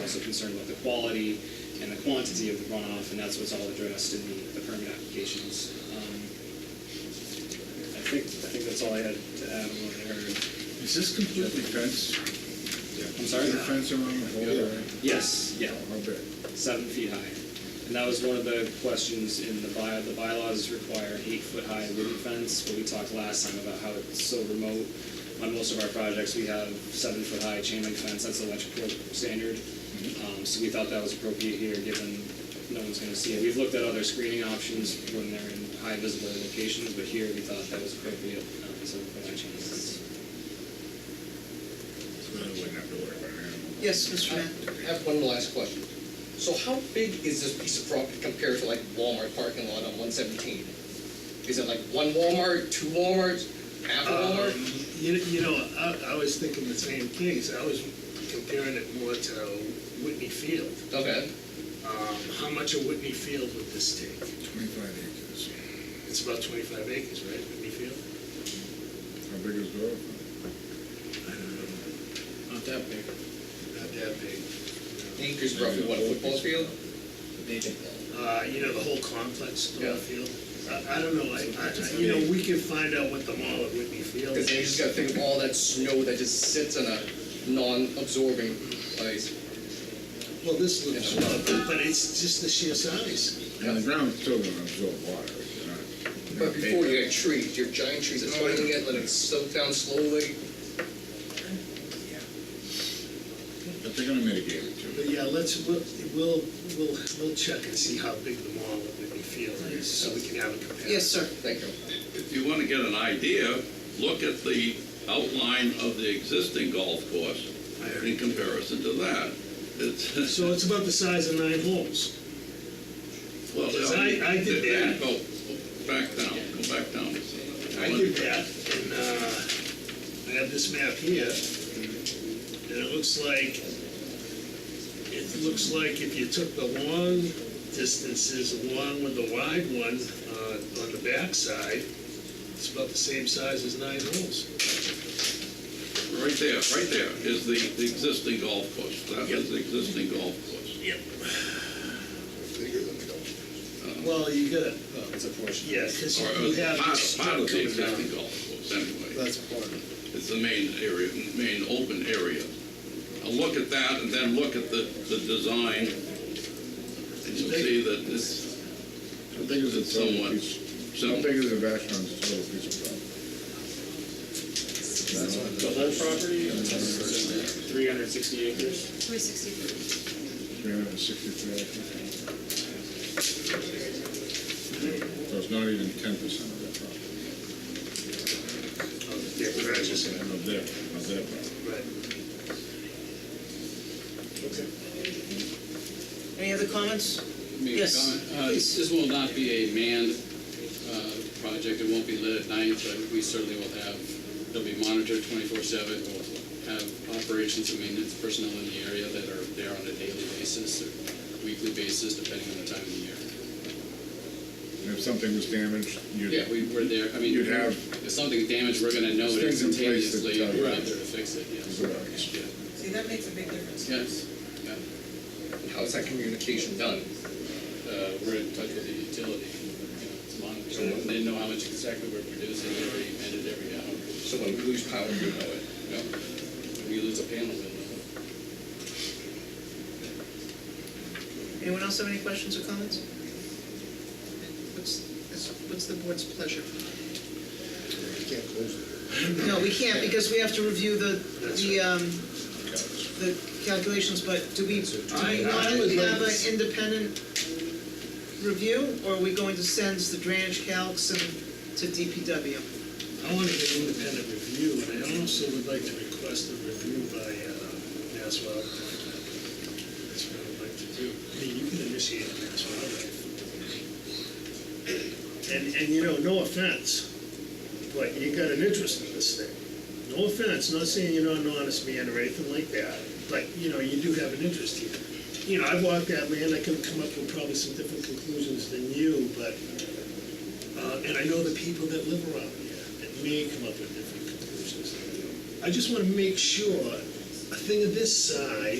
also concerned with the quality and the quantity of the runoff, and that's what's all addressed in the, the permit applications. Um, I think, I think that's all I had to add on what I heard. Is this completely fenced? I'm sorry? Is there a fence around the whole area? Oh, Yes, yeah, How big? seven feet high. And that was one of the questions in the by, the bylaws require an eight-foot-high wooden fence, but we talked last time about how it's so remote. On most of our projects, we have seven-foot-high chain link fence, that's the electrical standard. Um, so we thought that was appropriate here, given no one's gonna see it. We've looked at other screening options when they're in high visible locations, but here we thought that was appropriate, um, seven-foot-high chain link fence. So we wouldn't have to worry about it. Yes, Mr. I Mayor? have one last question. So how big is this piece of property compared to like Walmart parking lot on one seventeen? Is it like one Walmart, two Walmarts, half a Um, Walmart? You you know, I I was thinking the same things. I was comparing it more to Whitney Field. Okay, Um, How much of Whitney Field would this take? Twenty-five acres. It's about 25 acres, right, Whitney Field? How big is the road? Not that big. Not that big. acres roughly, what, a football field? Maybe. Uh, You know, the whole complex, the whole Yeah. field. I- I don't know, I- I- I- you know, we can find out what the mall at Whitney Field Because is. then you just gotta think of all that snow that just sits in a non-absorbing place. Well, this looks, small, but but it's just the sheer size. And the ground's still gonna absorb water, it's not. But before you got trees, your giant trees, that's why you get, let it soak down slowly. But they're gonna mitigate it too. But yeah, let's, we'll, we'll, we'll we'll check and see how big the mall at Whitney Field is, so we can have a comparison. Yes, sir. Thank you. If you want to get an idea, look at the outline of the existing golf course in comparison to that. It's, So it's about the size of nine holes. well, Because I- I did that. Go, go Oh, back down, go back down. I did that, and uh, I have this map here, and it looks like, it looks like if you took the long distances along with the wide one uh, on the backside, it's about the same size as nine holes. Right there, right there is the the existing golf course. That is the existing golf course. Yep. bigger than the golf. Well, you gotta, Well, It's a portion. yeah, because Or you uh, have part this of, strip part of the coming down. existing golf course, anyway. That's part of it. It's the main area, main open area. Now Look at that and then look at the, the design. And you'll see that this, How big is the total Somewhat. piece? So- How big is the Vashon's total piece of property? The whole property, three hundred and sixty acres. 363. Three hundred and sixty-three acres? So it's not even ten percent of that property. Yeah, correct. Of that, of that property. Right. Any other comments? Make a Yes, comment. Uh, This this will not be a manned uh, project, it won't be lit at night, but we certainly will have, it'll be monitored 24/7. We'll have operations and maintenance personnel in the area that are there on a daily basis or weekly basis, depending on the time of the year. And if something was damaged, you'd. Yeah, we, we're there, I mean. You'd have- If something's damaged, we're gonna know it Things in place to instantaneously, tell you. we're out there to fix it, yes. Right. Yeah. See, that makes a big difference. Yes, yeah, How's that communication done? uh, we're in touch with the utility, you know, it's monitored, they know how much exactly we're producing, they already measured every hour. So when we lose power, you know it. No, we lose a panel, then. Anyone else have any questions or comments? What's, is- what's the board's pleasure? You can't close it. No, we can't, because we have to review the, the, um, the calculations, but do we, do we I- I want would to have like- an independent review, or are we going to send the drainage calcs and to DPW? I want to get independent review, and I also would like to request a review by uh, Mass Wildlife. That's what I'd like to do. I mean, you can initiate a Mass Wildlife. And, and you know, no offense, but you got an interest in this thing. No offense, not saying you're not an honest man or anything like that, but, you know, you do have an interest here. You know, I've walked that land, I could come up with probably some different conclusions than you, but uh, and I know the people that live around here that may come up with different conclusions. I just want to make sure a thing of this size